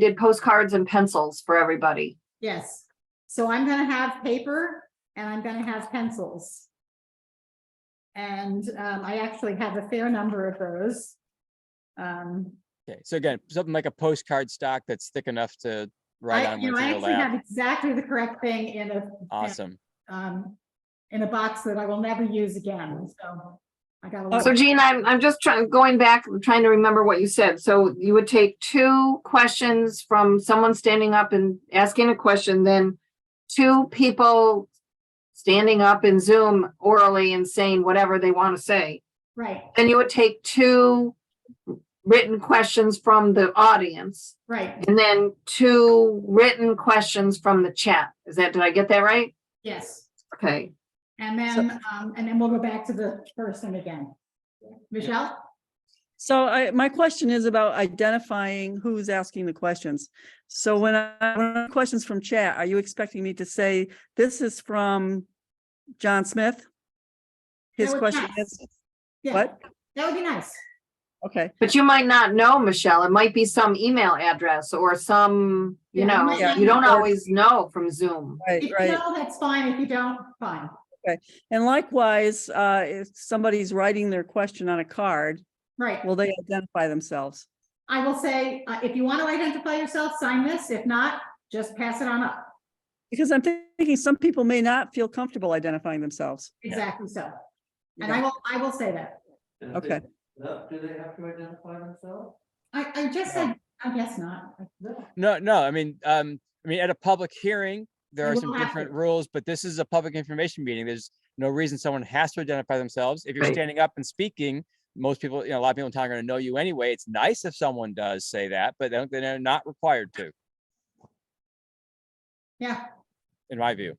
did postcards and pencils for everybody. Yes, so I'm gonna have paper and I'm gonna have pencils. And um, I actually have a fair number of those. Um, Okay, so again, something like a postcard stock that's thick enough to write I, on you know, what's I in your actually have lap. exactly the correct thing in a, Awesome. um, in a box that I will never use again, so. I got a So lot, Jean, I'm, I'm just trying, going back, I'm trying to remember what you said. So you would take two questions from someone standing up and asking a question, then two people standing up in Zoom orally and saying whatever they want to say. right, Then you would take two written questions from the audience right, and then two written questions from the chat. Is that, did I get that right? yes. Okay. And then, um, and then we'll go back to the person again. Michelle? So I, my question is about identifying who's asking the questions. So when I, when I- questions from chat, are you expecting me to say, this is from John Smith? His No, it's question not. is, Yeah, what? That would be nice. Okay, But you might not know, Michelle. It might be some email address or some, you Yeah, it know, might not you be don't work. always know from Zoom. right, If you right. know, that's fine. If you don't, fine. And likewise, uh, if somebody's writing their question on a card, Right. will they identify themselves? I will say, uh, if you want to identify yourself, sign this. If not, just pass it on up. Because I'm thinking some people may not feel comfortable identifying themselves. Exactly so. And Yeah. I will, I will say that. And if they- Okay, no, Do they have to identify themselves? I, I just said, I guess not. No, no, I mean, um, I mean, at a public hearing, there You are will some have different to. rules, but this is a public information meeting. There's no reason someone has to identify themselves. If you're Right. standing up and speaking, most people, you know, a lot of people in town are gonna know you anyway. It's nice if someone does say that, but they don't- they're not required to, Yeah, in my view.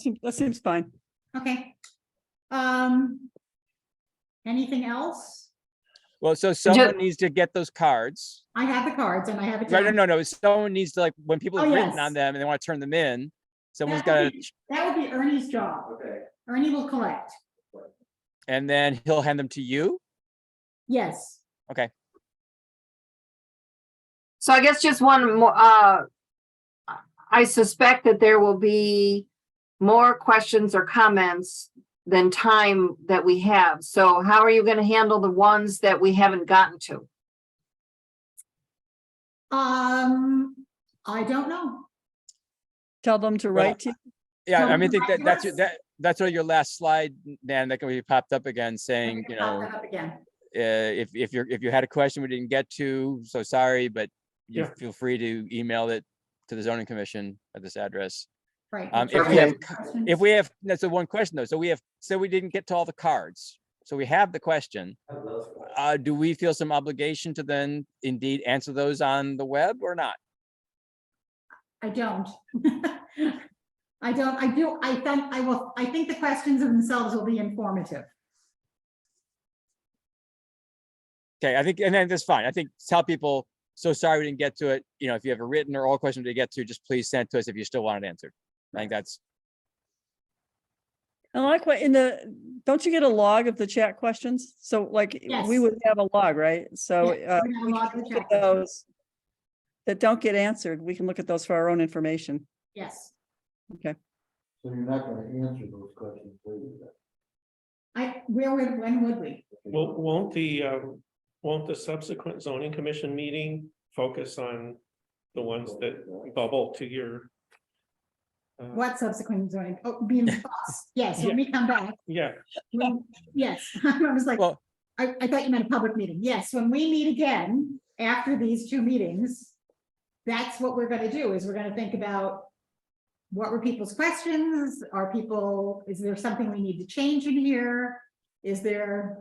Seem- that seems fine. okay. Um. Anything else? Well, so someone needs to get those cards. I have the cards and I have it. Right, no, down. no, no, someone needs to like, when people Oh, have written on yes. them and they want to turn them in, someone's That gotta, would be- That would be Ernie's job. Okay, Ernie will collect. and then he'll hand them to you. Yes. So I guess just one more, uh, I suspect that there will be more questions or comments than time that we have. So how are you going to handle the ones that we haven't gotten to? Um, I don't know. Tell them to Well, write to you. Yeah, I Someone mean, I think write that, to that's, your- us. that, that's on your last slide, Nan, that can be popped up again saying, you Pop know, that up Again. uh, if, if you're, if you had a question we didn't get to, so sorry, but you Yeah. feel free to email it to the zoning commission at this address. Right. Um, if we have- Questions? If we have, that's the one question though. So we have, so we didn't get to all the cards. So we have the question. I have those ones. Uh, do we feel some obligation to then indeed answer those on the web or not? I don't. I don't, I do, I think, I will, I think the questions themselves will be informative. Okay, I think, and then that's fine. I think tell people, so sorry we didn't get to it. You know, if you have a written or oral question to get to, just please send to us if you still want it answered. I think that's, And likewise, in the, don't you get a log of the chat questions? So like, we Yes. would have a log, right? So Yeah, uh, we have a we log can of the look at chat questions. those that don't get answered, we can look at those for our own information. Yes, So you're not gonna answer those questions later then? I, where would, when would we? Well, won't the, um, won't the subsequent zoning commission meeting focus on the ones that bubble to your? uh, What subsequent zoning, oh, being bus, yes, when we come back, Yeah, when- yes, I was like, well, I, I thought you meant a public meeting, yes, when we meet again after these two meetings, that's what we're gonna do, is we're gonna think about what were people's questions, are people, is there something we need to change in here? Is there,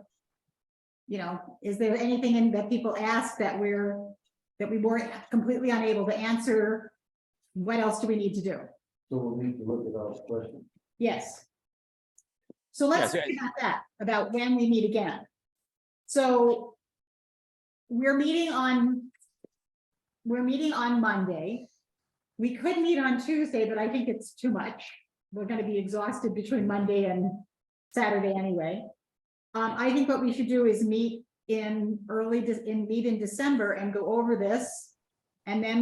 you know, is there anything in- that people ask that we're, that we weren't completely unable to answer? What else do we need to do? So we'll need to look at our questions. Yes. So let's Yes, think about that, about when we meet again. So we're meeting on, we're meeting on Monday. We could meet on Tuesday, but I think it's too much. We're gonna be exhausted between Monday and Saturday anyway. Um, I think what we should do is meet in early, Dec- in, meet in December and go over this. And then